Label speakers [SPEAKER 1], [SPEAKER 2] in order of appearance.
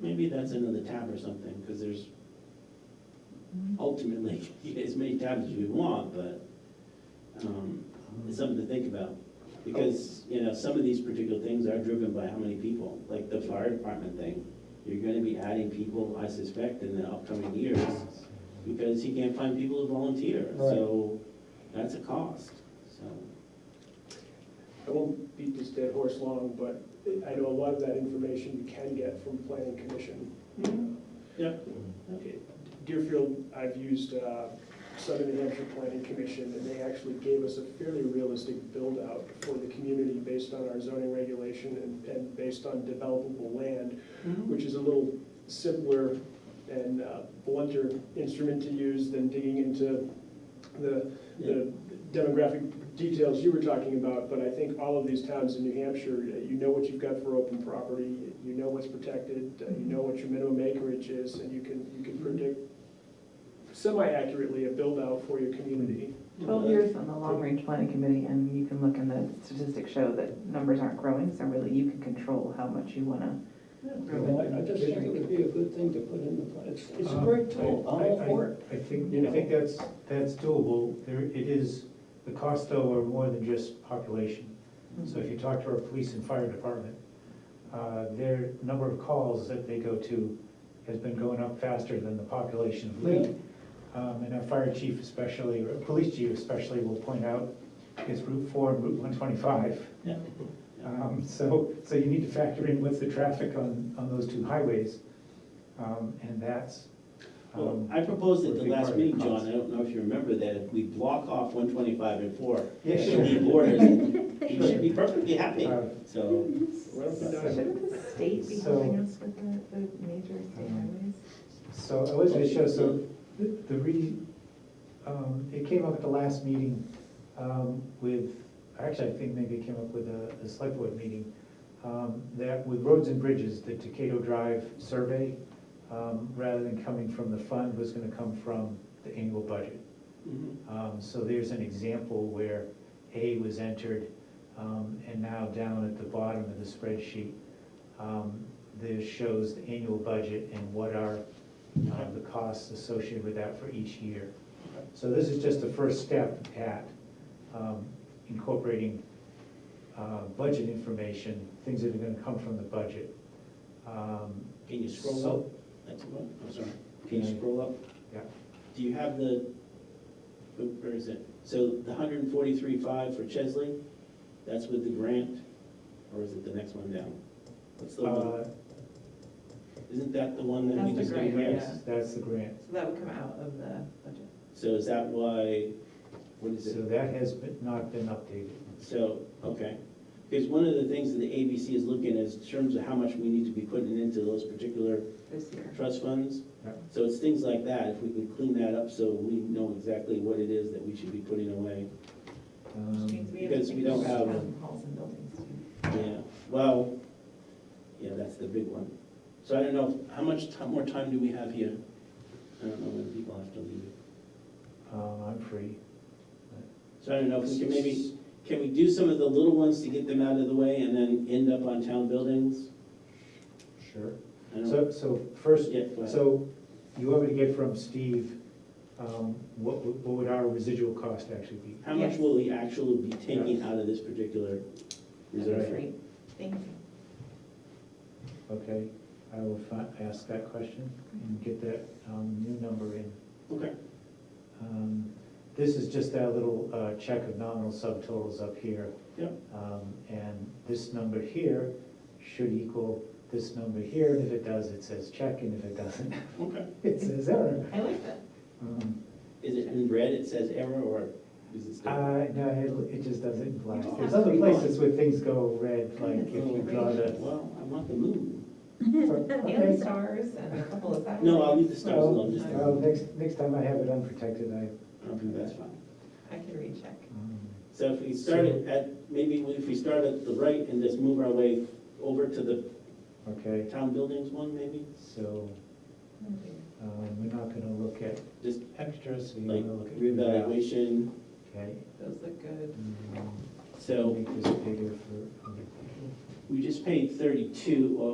[SPEAKER 1] maybe that's another tab or something, because there's ultimately as many tabs as we want, but um, it's something to think about. Because, you know, some of these particular things are driven by how many people, like the fire department thing. You're gonna be adding people, I suspect, in the upcoming years, because he can't find people to volunteer, so that's a cost, so.
[SPEAKER 2] I won't beat this dead horse long, but I know a lot of that information you can get from planning commission.
[SPEAKER 1] Yeah.
[SPEAKER 2] Deerfield, I've used uh, Southern New Hampshire Planning Commission, and they actually gave us a fairly realistic build-out for the community based on our zoning regulation and, and based on developable land, which is a little simpler and uh, blunter instrument to use than digging into the, the demographic details you were talking about, but I think all of these towns in New Hampshire, uh, you know what you've got for open property, you know what's protected, uh, you know what your minimum acreage is, and you can, you can predict semi-accurately a build-out for your community.
[SPEAKER 3] Twelve years on the long-range planning committee, and you can look and the statistics show that numbers aren't growing, so really you can control how much you wanna.
[SPEAKER 4] Well, I I just think it would be a good thing to put in the, pla- it's, it's a great tool, I'm all for it.
[SPEAKER 5] I think,
[SPEAKER 4] You know?
[SPEAKER 5] I think that's, that's doable. There, it is, the costs though are more than just population. So if you talk to our police and fire department, uh, their number of calls that they go to has been going up faster than the population of Lee. Um, and our fire chief especially, or police chief especially will point out, it's Route four and Route one twenty-five.
[SPEAKER 1] Yeah.
[SPEAKER 5] Um, So, so you need to factor in what's the traffic on, on those two highways, um, and that's.
[SPEAKER 1] Well,
[SPEAKER 5] um,
[SPEAKER 1] I proposed at
[SPEAKER 5] would
[SPEAKER 1] the
[SPEAKER 5] be part
[SPEAKER 1] last
[SPEAKER 5] of the
[SPEAKER 1] meeting, John,
[SPEAKER 5] cost.
[SPEAKER 1] I don't know if you remember that, if we block off one twenty-five and four,
[SPEAKER 5] Yeah,
[SPEAKER 1] should
[SPEAKER 5] sure.
[SPEAKER 1] be borders, you should be perfectly happy,
[SPEAKER 5] Uh,
[SPEAKER 1] so.
[SPEAKER 2] Right up and down.
[SPEAKER 3] Shouldn't the state be
[SPEAKER 5] So-
[SPEAKER 3] helping us with the, the major state highways?
[SPEAKER 5] So I was gonna show, so the the re, um, it came up at the last meeting, um, with, actually, I think maybe it came up with a, a select board meeting, um, that with roads and bridges, the Tacato Drive survey, um, rather than coming from the fund, was gonna come from the annual budget.
[SPEAKER 4] Mm-hmm.
[SPEAKER 1] Mhm.
[SPEAKER 5] Um, So there's an example where A was entered, um, and now down at the bottom of the spreadsheet, um, this shows the annual budget and what are uh, the costs associated with that for each year. So this is just the first step at um, incorporating uh, budget information, things that are gonna come from the budget. Um,
[SPEAKER 1] Can you scroll
[SPEAKER 5] So-
[SPEAKER 1] up? That's what, I'm sorry. Can you
[SPEAKER 5] Can I-
[SPEAKER 1] scroll up?
[SPEAKER 5] Yeah.
[SPEAKER 1] Do you have the, oop, where is it? So the hundred and forty-three five for Chesley, that's with the grant, or is it the next one down? What's the one,
[SPEAKER 5] uh,
[SPEAKER 1] isn't that the one that we
[SPEAKER 3] That's the
[SPEAKER 1] just got?
[SPEAKER 3] grant,
[SPEAKER 1] here?
[SPEAKER 3] yeah.
[SPEAKER 5] That's the grant.
[SPEAKER 3] So that would come out of the budget.
[SPEAKER 1] So is that why, what is it?
[SPEAKER 5] So that has been- not been updated.
[SPEAKER 1] So, okay, because one of the things that the ABC is looking is in terms of how much we need to be putting into those particular
[SPEAKER 3] This year.
[SPEAKER 1] trust funds.
[SPEAKER 5] Yeah.
[SPEAKER 1] So it's things like that, if we could clean that up so we know exactly what it is that we should be putting away.
[SPEAKER 5] Um,
[SPEAKER 3] Which means we have to
[SPEAKER 1] because we
[SPEAKER 3] think
[SPEAKER 1] don't
[SPEAKER 3] about
[SPEAKER 1] have-
[SPEAKER 3] town Halls and buildings too.
[SPEAKER 1] Yeah, well, yeah, that's the big one. So I don't know, how much ti- more time do we have here? I don't know when people have to leave.
[SPEAKER 5] Um, I'm free.
[SPEAKER 1] So I don't know if we can maybe, can we do some of the little ones to get them out of the way and then end up on town buildings?
[SPEAKER 5] Sure.
[SPEAKER 1] I don't know.
[SPEAKER 5] So, so first,
[SPEAKER 1] Yeah, go ahead.
[SPEAKER 5] so you want me to get from Steve, um, what, would- what would our residual cost actually be?
[SPEAKER 1] How much
[SPEAKER 3] Yes.
[SPEAKER 1] will he actually be taking out of this particular
[SPEAKER 3] That'd be
[SPEAKER 1] reserve?
[SPEAKER 3] great. Thank you.
[SPEAKER 5] Okay, I will fi- ask that question and get that, um, new number in.
[SPEAKER 1] Okay.
[SPEAKER 5] Um, This is just that little, uh, check of nominal subtotals up here.
[SPEAKER 1] Yep.
[SPEAKER 5] Um, and this number here should equal this number here, and if it does, it says check, and if it doesn't,
[SPEAKER 1] Okay.
[SPEAKER 5] it says error.
[SPEAKER 3] I like that.
[SPEAKER 5] Um,
[SPEAKER 1] Is it in red, it says error, or is it still?
[SPEAKER 5] Uh, no, it, it just doesn't apply.
[SPEAKER 1] You don't
[SPEAKER 5] There's
[SPEAKER 1] have
[SPEAKER 5] other
[SPEAKER 1] three lines.
[SPEAKER 5] places where things go red, like if
[SPEAKER 1] Oh,
[SPEAKER 5] you draw the.
[SPEAKER 1] Well, I want the moon.
[SPEAKER 3] And
[SPEAKER 5] Okay.
[SPEAKER 3] the stars and a couple of satellites.
[SPEAKER 1] No, I'll leave the stars
[SPEAKER 5] Well,
[SPEAKER 1] alone, just,
[SPEAKER 3] Oh, Okay.
[SPEAKER 5] well, next, next time I have it unprotected, I.
[SPEAKER 1] okay, that's fine.
[SPEAKER 3] I can recheck.
[SPEAKER 5] um,
[SPEAKER 1] So if we start it at, maybe if we start at the right and just move our way over to the
[SPEAKER 5] Okay,
[SPEAKER 1] town buildings one, maybe?
[SPEAKER 5] so,
[SPEAKER 3] Hmm.
[SPEAKER 5] um, we're not gonna look at
[SPEAKER 1] Just
[SPEAKER 5] extras, so you're
[SPEAKER 1] like
[SPEAKER 5] gonna look at. reval.
[SPEAKER 1] reevaluation,
[SPEAKER 5] Okay.
[SPEAKER 3] Those look good.
[SPEAKER 5] um,
[SPEAKER 1] so
[SPEAKER 5] Make this bigger for. um,
[SPEAKER 1] we just paid thirty-two, or